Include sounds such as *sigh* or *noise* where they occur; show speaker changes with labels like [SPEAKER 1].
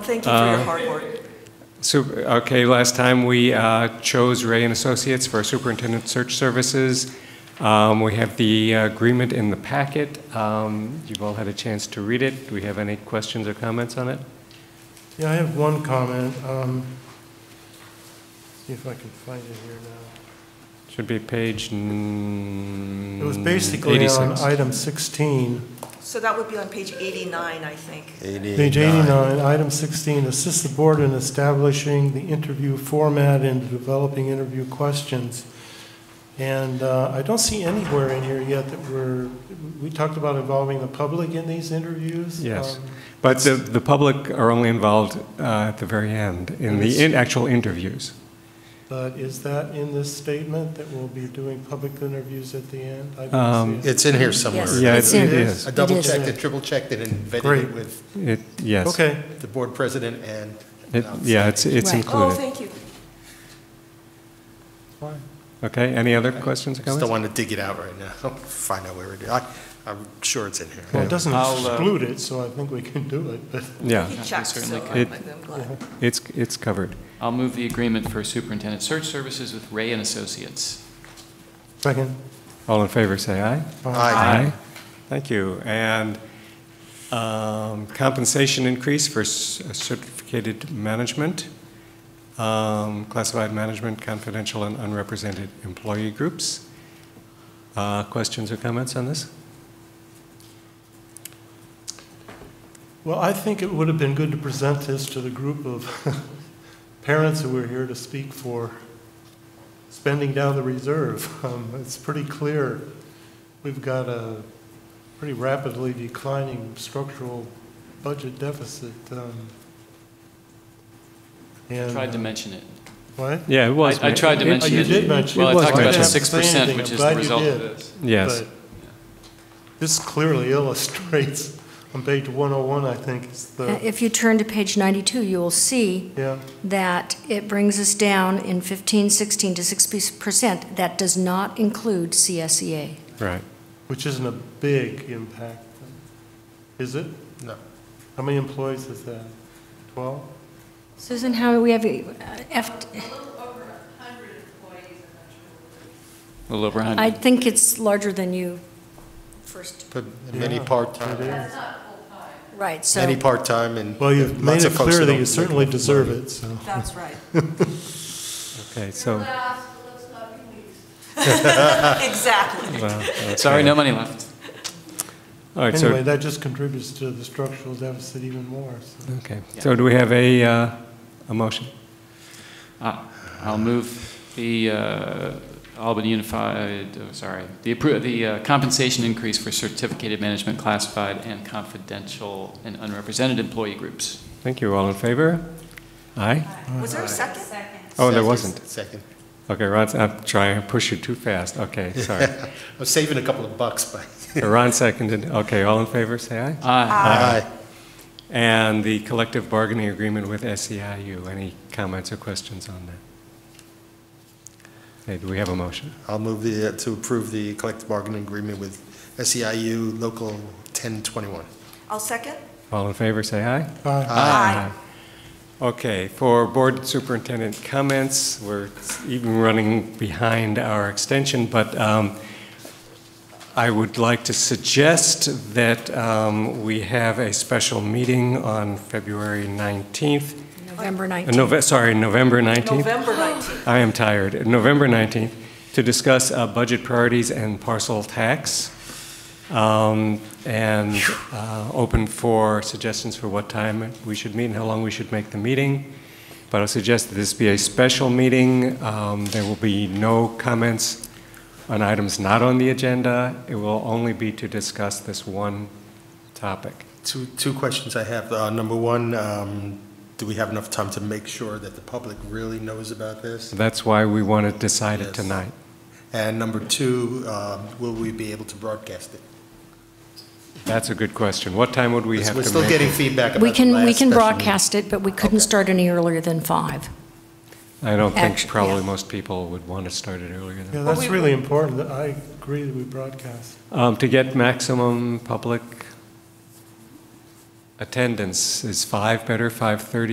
[SPEAKER 1] Thank you for your hard work.
[SPEAKER 2] So, okay, last time we uh, chose Ray and Associates for Superintendent Search Services. Um, We have the agreement in the packet. Um, You've all had a chance to read it. Do we have any questions or comments on it?
[SPEAKER 3] Yeah, I have one comment. Um, See if I can find it here now.
[SPEAKER 2] Should be page mm, 86.
[SPEAKER 3] It was basically uh, on item 16,
[SPEAKER 1] So that would be on page 89, I think.
[SPEAKER 3] page 89, item 16, assist the board in establishing the interview format and developing interview questions. And uh, I don't see anywhere in here yet that we're, we talked about involving the public in these interviews.
[SPEAKER 2] Yes.
[SPEAKER 3] Um,
[SPEAKER 2] But the, the public are only involved uh, at the very end, in the in- actual interviews.
[SPEAKER 3] But is that in this statement, that we'll be doing public interviews at the end? I
[SPEAKER 2] Um,
[SPEAKER 3] don't see it.
[SPEAKER 4] It's in here somewhere.
[SPEAKER 5] Yes.
[SPEAKER 2] Yeah, it
[SPEAKER 5] It's
[SPEAKER 2] it
[SPEAKER 5] in.
[SPEAKER 2] is.
[SPEAKER 4] I double
[SPEAKER 5] It is.
[SPEAKER 4] checked it, triple checked it, and vetted
[SPEAKER 3] Great.
[SPEAKER 4] it with
[SPEAKER 2] It, yes.
[SPEAKER 3] Okay,
[SPEAKER 4] the board president and.
[SPEAKER 2] It- Yeah, it's, it's
[SPEAKER 5] Right.
[SPEAKER 1] Oh,
[SPEAKER 2] included.
[SPEAKER 1] thank you.
[SPEAKER 2] Okay, any other questions or comments?
[SPEAKER 4] Still want to dig it out right now, *laughs* find out where it is. I- I'm sure it's in here.
[SPEAKER 3] well, it doesn't
[SPEAKER 6] I'll, uh,
[SPEAKER 3] exclude it, so I think we can do it, but.
[SPEAKER 2] Yeah,
[SPEAKER 1] He checked, so
[SPEAKER 6] certainly
[SPEAKER 1] I'm
[SPEAKER 2] could.
[SPEAKER 1] I'm glad.
[SPEAKER 2] it's, it's covered.
[SPEAKER 6] I'll move the agreement for superintendent search services with Ray and Associates.
[SPEAKER 3] Second.
[SPEAKER 2] All in favor, say aye.
[SPEAKER 4] Aye.
[SPEAKER 2] Thank you. And um, compensation increase for s- certificated management, um, classified management, confidential and unrepresented employee groups. Uh, Questions or comments on this?
[SPEAKER 3] Well, I think it would have been good to present this to the group of *laughs* parents who were here to speak for spending down the reserve. *laughs* Um, It's pretty clear, we've got a pretty rapidly declining structural budget deficit. um, and-
[SPEAKER 6] Tried to mention it.
[SPEAKER 3] What?
[SPEAKER 2] Yeah, it was.
[SPEAKER 6] I I tried to
[SPEAKER 2] it-
[SPEAKER 6] mention
[SPEAKER 3] Uh, you
[SPEAKER 6] it.
[SPEAKER 3] did mention it.
[SPEAKER 6] Well,
[SPEAKER 2] It
[SPEAKER 6] I talked
[SPEAKER 2] was
[SPEAKER 6] about the
[SPEAKER 2] mentioned.
[SPEAKER 6] 6%, which
[SPEAKER 3] I'm
[SPEAKER 6] is
[SPEAKER 3] glad
[SPEAKER 6] the
[SPEAKER 3] you
[SPEAKER 6] result of
[SPEAKER 3] did.
[SPEAKER 6] this.
[SPEAKER 2] Yes.
[SPEAKER 3] But This clearly *laughs* illustrates, on page 101, I think, it's
[SPEAKER 5] Uh,
[SPEAKER 3] the,
[SPEAKER 5] If you turn to page 92, you will see
[SPEAKER 3] yeah.
[SPEAKER 5] that it brings us down in 15, 16 to 6%. That does not include E CSEA.
[SPEAKER 2] Right.
[SPEAKER 3] Which isn't a big impact, is it?
[SPEAKER 4] No.
[SPEAKER 3] How many employees is that? 12?
[SPEAKER 5] Susan, how do we have, uh, F-
[SPEAKER 6] A little over 100.
[SPEAKER 5] I think it's larger than you first,
[SPEAKER 4] But many
[SPEAKER 3] Yeah, it
[SPEAKER 4] part-time,
[SPEAKER 3] is.
[SPEAKER 5] right,
[SPEAKER 4] many
[SPEAKER 5] so,
[SPEAKER 4] part-time and.
[SPEAKER 3] Well, you've made
[SPEAKER 4] lots
[SPEAKER 3] it
[SPEAKER 4] of folks
[SPEAKER 3] clear that
[SPEAKER 4] don't
[SPEAKER 3] you
[SPEAKER 4] make
[SPEAKER 3] certainly
[SPEAKER 4] enough
[SPEAKER 3] deserve
[SPEAKER 4] money.
[SPEAKER 3] it, so.
[SPEAKER 1] That's right.
[SPEAKER 2] Okay, so,
[SPEAKER 1] Exactly.
[SPEAKER 6] *laughs* Sorry, no money
[SPEAKER 2] uh,
[SPEAKER 6] left.
[SPEAKER 2] all right,
[SPEAKER 3] Anyway,
[SPEAKER 2] so,
[SPEAKER 3] that just contributes to the structural deficit even more, so.
[SPEAKER 2] okay. So do we have a, uh, a motion?
[SPEAKER 6] Ah, I'll move the uh, Albany Unified, oh, sorry, the appro, the uh, compensation increase for certificated management, classified and confidential and unrepresented employee groups.
[SPEAKER 2] Thank you. All in favor? Aye?
[SPEAKER 1] Was there a second? Second.
[SPEAKER 2] Oh, there
[SPEAKER 4] Second-
[SPEAKER 2] wasn't.
[SPEAKER 4] Second.
[SPEAKER 2] Okay, Ron, I'm trying to push you too fast. Okay,
[SPEAKER 6] *laughs*
[SPEAKER 2] sorry.
[SPEAKER 4] I was saving a couple of bucks, but. *laughs*
[SPEAKER 2] Ron seconded. Okay, all in favor, say aye.
[SPEAKER 6] Aye.
[SPEAKER 4] Aye.
[SPEAKER 2] And the collective bargaining agreement with SEIU, any comments or questions on that? Okay, do we have a motion?
[SPEAKER 4] I'll move the, uh, to approve the collective bargaining agreement with SEIU Local 1021.
[SPEAKER 1] I'll second.
[SPEAKER 2] All in favor, say aye.
[SPEAKER 3] Aye.
[SPEAKER 1] Aye.
[SPEAKER 2] Okay, for board superintendent comments, we're even running behind our extension, but um, I would like to suggest that um, we have a special meeting on February 19th,
[SPEAKER 5] November
[SPEAKER 2] uh,
[SPEAKER 5] 19th.
[SPEAKER 2] Nove- sorry, November 19th.
[SPEAKER 1] November 19th.
[SPEAKER 2] I am tired. November 19th, to discuss uh, budget priorities and parcel tax, um, and uh, open for suggestions for what time we should meet and how long we should make the meeting. But I suggest that this be a special meeting. Um, There will be no comments on items not on the agenda. It will only be to discuss this one topic.
[SPEAKER 4] Two, two questions I have. Uh, Number one, um, do we have enough time to make sure that the public really knows about this?
[SPEAKER 2] So that's why we want to decide it
[SPEAKER 4] Yes.
[SPEAKER 2] tonight.
[SPEAKER 4] And number two, um, will we be able to broadcast it?
[SPEAKER 2] That's a good question. What time would we have to
[SPEAKER 4] We're
[SPEAKER 2] make?
[SPEAKER 4] still
[SPEAKER 2] it?
[SPEAKER 4] getting feedback about
[SPEAKER 5] We
[SPEAKER 4] the
[SPEAKER 5] can, we
[SPEAKER 4] last
[SPEAKER 5] can
[SPEAKER 4] special
[SPEAKER 5] broadcast it, but we couldn't
[SPEAKER 4] Okay.
[SPEAKER 5] start any earlier than 5.
[SPEAKER 2] I don't think
[SPEAKER 5] Actu-
[SPEAKER 2] probably
[SPEAKER 5] yeah.
[SPEAKER 2] most people would want to start it earlier
[SPEAKER 3] Yeah,
[SPEAKER 2] than,
[SPEAKER 3] that's really important. that I agree that we broadcast.
[SPEAKER 2] Um, to get maximum public attendance. Is five better, 5:30